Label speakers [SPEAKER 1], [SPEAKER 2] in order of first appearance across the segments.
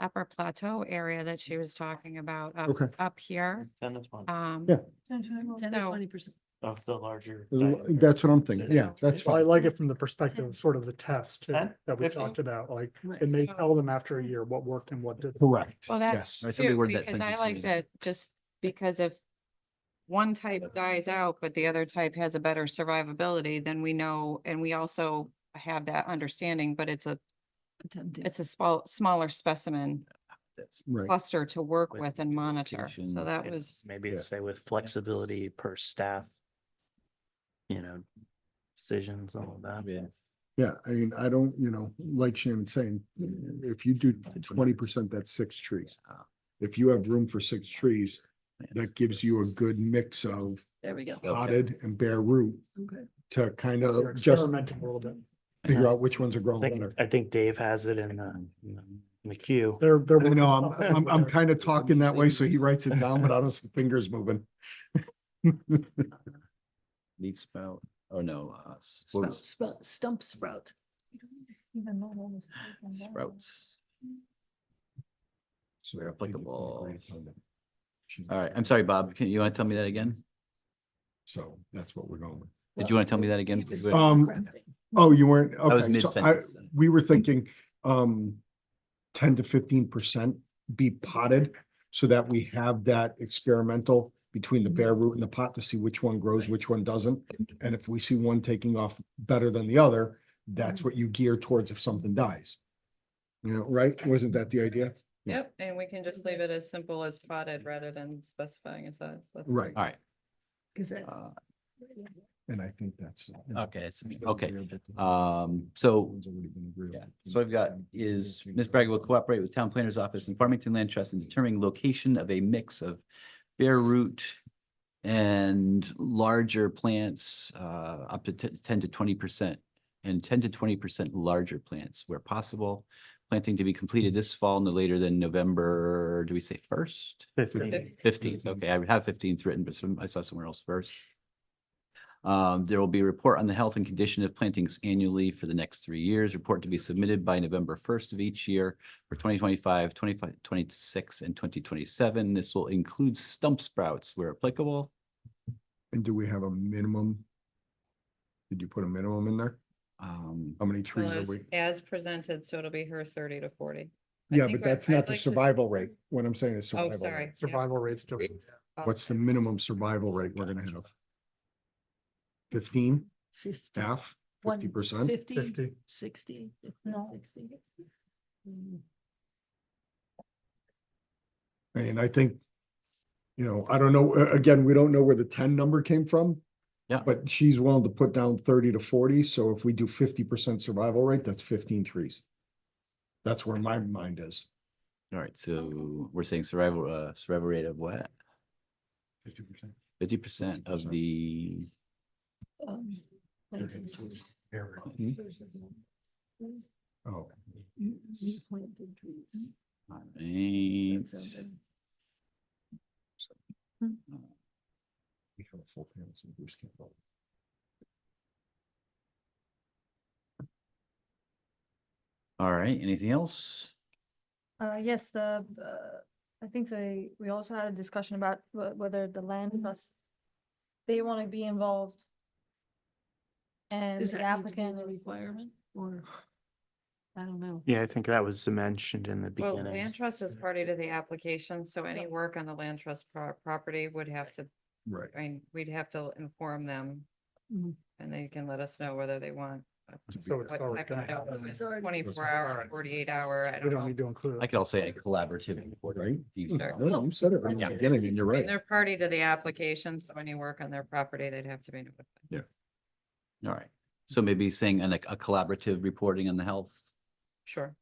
[SPEAKER 1] upper plateau area that she was talking about up,
[SPEAKER 2] Okay.
[SPEAKER 1] up here.
[SPEAKER 3] Ten to twenty
[SPEAKER 1] Um,
[SPEAKER 2] Yeah.
[SPEAKER 1] So-
[SPEAKER 4] Twenty percent.
[SPEAKER 3] of the larger. diameter.
[SPEAKER 2] That's what I'm thinking. Yeah, that's
[SPEAKER 5] Well, I
[SPEAKER 2] fine.
[SPEAKER 5] like it from the perspective of sort of the test too,
[SPEAKER 3] Ten?
[SPEAKER 5] that we
[SPEAKER 3] Fifteen?
[SPEAKER 5] talked about, like,
[SPEAKER 4] Right.
[SPEAKER 5] and they
[SPEAKER 1] So-
[SPEAKER 5] tell them after a year what worked and what didn't.
[SPEAKER 2] Correct.
[SPEAKER 1] well, that's
[SPEAKER 6] Alright, somebody
[SPEAKER 1] too,
[SPEAKER 6] word that
[SPEAKER 1] because I
[SPEAKER 6] sentence for me.
[SPEAKER 1] like that, just because if one type dies out, but the other type has a better survivability, then we know, and we also have that understanding, but it's a, it's a small, smaller specimen
[SPEAKER 6] That's-
[SPEAKER 2] Right.
[SPEAKER 1] cluster to work
[SPEAKER 6] With
[SPEAKER 1] with and monitor. So
[SPEAKER 6] education
[SPEAKER 1] that
[SPEAKER 3] And
[SPEAKER 1] was,
[SPEAKER 3] Maybe
[SPEAKER 2] Yeah.
[SPEAKER 3] say with flexibility per staff. You know, decisions, all of that.
[SPEAKER 6] Yeah.
[SPEAKER 2] Yeah, I mean, I don't, you know, like Shannon's saying, if you do twenty percent, that's six trees. If you have room for six trees, that gives you a good mix of
[SPEAKER 4] There we go.
[SPEAKER 2] potted and bare root
[SPEAKER 4] Okay.
[SPEAKER 2] to kind
[SPEAKER 5] You're
[SPEAKER 2] of just
[SPEAKER 5] experimenting a little bit.
[SPEAKER 2] figure out which ones are
[SPEAKER 3] I
[SPEAKER 2] growing better.
[SPEAKER 3] think, I think Dave has it in the, in the- in the queue.
[SPEAKER 5] They're, they're.
[SPEAKER 2] I
[SPEAKER 5] working
[SPEAKER 2] know, I'm,
[SPEAKER 5] on it,
[SPEAKER 2] I'm, I'm
[SPEAKER 5] whether-
[SPEAKER 2] kind of talking that way, so he writes it down, but I don't see fingers moving.
[SPEAKER 6] Leaf spout, or no, uh, s- what
[SPEAKER 4] Sprout,
[SPEAKER 6] was-
[SPEAKER 4] sprout- Stump sprout.
[SPEAKER 6] sprouts.
[SPEAKER 2] So
[SPEAKER 6] Where applicable. All right, I'm sorry, Bob, can, you want to tell me that again?
[SPEAKER 2] So that's what we're going with.
[SPEAKER 6] Did you want to tell me that again?
[SPEAKER 4] It was
[SPEAKER 2] Uh, Um,
[SPEAKER 4] crafting.
[SPEAKER 2] Oh, you weren't,
[SPEAKER 6] was
[SPEAKER 2] okay, so I,
[SPEAKER 6] mid-sentence.
[SPEAKER 2] we were thinking, um, ten to fifteen percent be potted. So that we have that experimental between the bare root and the pot to see which one grows, which one doesn't. And if we see one taking off better than the other, that's what you gear towards if something dies. You know, right? Wasn't that the idea?
[SPEAKER 1] yep, and we can just leave it as simple as potted rather than specifying a size. That's-
[SPEAKER 2] Right,
[SPEAKER 6] All right,
[SPEAKER 4] Cause that's.
[SPEAKER 6] uh,
[SPEAKER 2] and I think that's.
[SPEAKER 6] okay, it's, okay. Um, so, yeah, so I've got is Ms. Bragg will cooperate with Town Planner's Office and Farmington Land Trust in determining location of a mix of bare root and larger plants, uh, up to te- ten to twenty percent and ten to twenty percent larger plants where possible. Planting to be completed this fall no later than November, do we say first?
[SPEAKER 3] Fifteen.
[SPEAKER 6] Fifteenth,
[SPEAKER 2] Mm-hmm.
[SPEAKER 6] okay, I would have fifteenth written, but some, I saw somewhere else first. Um, there will be a report on the health and condition of plantings annually for the next three years, report to be submitted by November first of each year for 2025, 25, 26, and twenty twenty-seven. This will include stump sprouts where applicable.
[SPEAKER 2] And do we have a minimum? Did you put a minimum in there?
[SPEAKER 6] Um,
[SPEAKER 2] How many
[SPEAKER 1] Well,
[SPEAKER 2] trees are
[SPEAKER 1] as-
[SPEAKER 2] we?
[SPEAKER 1] As presented, so it'll be her thirty to forty. I
[SPEAKER 2] Yeah,
[SPEAKER 1] think
[SPEAKER 2] but
[SPEAKER 1] I-
[SPEAKER 2] that's
[SPEAKER 1] I'd
[SPEAKER 2] not the
[SPEAKER 1] like to-
[SPEAKER 2] survival rate. What I'm saying is
[SPEAKER 1] Oh,
[SPEAKER 2] survival
[SPEAKER 1] sorry.
[SPEAKER 2] rate.
[SPEAKER 1] yeah, Oh.
[SPEAKER 5] Survival rates different.
[SPEAKER 2] What's the
[SPEAKER 1] apologize.
[SPEAKER 2] minimum survival rate we're gonna have? Fifteen,
[SPEAKER 4] Fifty.
[SPEAKER 2] half,
[SPEAKER 4] one-
[SPEAKER 2] fifty percent?
[SPEAKER 4] Fifty,
[SPEAKER 5] 50.
[SPEAKER 4] sixty,
[SPEAKER 7] No.
[SPEAKER 4] sixty. Mm,
[SPEAKER 2] I mean, I think, you know, I don't know, a- again, we don't know where the ten number came from.
[SPEAKER 6] Yeah.
[SPEAKER 2] But she's willing to put down thirty to forty, so if we do fifty percent survival rate, that's fifteen trees. That's where my mind is.
[SPEAKER 6] all right, so we're saying survival, uh, survival rate of what?
[SPEAKER 2] Fifty percent.
[SPEAKER 6] Fifty percent of
[SPEAKER 2] 50%.
[SPEAKER 6] the,
[SPEAKER 4] um, planted versus
[SPEAKER 2] Hmm?
[SPEAKER 4] non- Mm,
[SPEAKER 2] Oh,
[SPEAKER 4] mm, planted trees. So
[SPEAKER 6] all right.
[SPEAKER 4] it sounds like-
[SPEAKER 2] we have a full panel, so Bruce can't vote.
[SPEAKER 6] all right, anything else?
[SPEAKER 7] Uh, yes, the, uh, I think they, we also had a discussion about wh- whether the land
[SPEAKER 4] Mm-hmm.
[SPEAKER 7] trust, they want to be involved. And
[SPEAKER 4] Does
[SPEAKER 7] the
[SPEAKER 4] that need to be
[SPEAKER 7] applicant
[SPEAKER 4] a
[SPEAKER 7] is,
[SPEAKER 4] requirement or? I don't know.
[SPEAKER 3] Yeah, I think that was mentioned in the
[SPEAKER 1] Well,
[SPEAKER 3] beginning.
[SPEAKER 1] land trust is party to the application, so any work on the land trust pro- property would have to,
[SPEAKER 2] Right,
[SPEAKER 1] I mean, we'd have to inform them.
[SPEAKER 4] Mhm.
[SPEAKER 1] And they can let us know whether they want. a-
[SPEAKER 5] Mm-hmm. So it's
[SPEAKER 1] what
[SPEAKER 5] already
[SPEAKER 1] type
[SPEAKER 5] gonna
[SPEAKER 1] of
[SPEAKER 5] happen.
[SPEAKER 1] notice,
[SPEAKER 4] It's already-
[SPEAKER 1] Twenty-four hour,
[SPEAKER 5] Alright.
[SPEAKER 1] forty-eight hour, I
[SPEAKER 5] We
[SPEAKER 1] don't
[SPEAKER 5] don't
[SPEAKER 1] know.
[SPEAKER 5] need to include.
[SPEAKER 6] I
[SPEAKER 5] it.
[SPEAKER 6] could all say a collaborative.
[SPEAKER 2] right? Hmm.
[SPEAKER 6] report.
[SPEAKER 1] Sure.
[SPEAKER 2] No, you said it in the
[SPEAKER 6] Yeah.
[SPEAKER 2] beginning, and you're
[SPEAKER 1] I mean,
[SPEAKER 2] right.
[SPEAKER 1] They're party to the application, so any work on their property, they'd have to be notified.
[SPEAKER 6] All right, so maybe saying a, like a collaborative reporting on the health,
[SPEAKER 1] Sure.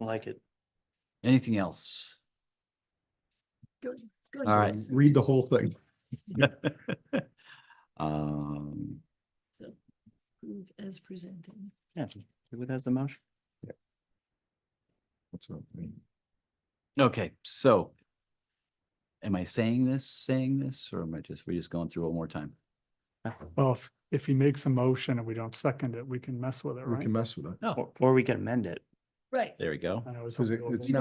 [SPEAKER 3] Like it.
[SPEAKER 6] anything else?
[SPEAKER 4] Good, good.
[SPEAKER 6] All right.
[SPEAKER 2] Read the whole thing.
[SPEAKER 6] Um,
[SPEAKER 4] So, Prove as presented.
[SPEAKER 3] Yeah. Who has the motion?
[SPEAKER 2] That's what I mean.
[SPEAKER 6] okay, so. Am I saying this, saying this, or am I just, we're just going through it one more time?
[SPEAKER 5] Well, if, if he makes a motion and we don't second it, we can mess with it,
[SPEAKER 2] We
[SPEAKER 5] right?
[SPEAKER 2] can mess with it.
[SPEAKER 3] Or we can amend it.
[SPEAKER 8] Right.
[SPEAKER 9] There we go.
[SPEAKER 6] I know it was
[SPEAKER 5] Because it-
[SPEAKER 6] unbelievable.
[SPEAKER 5] it's not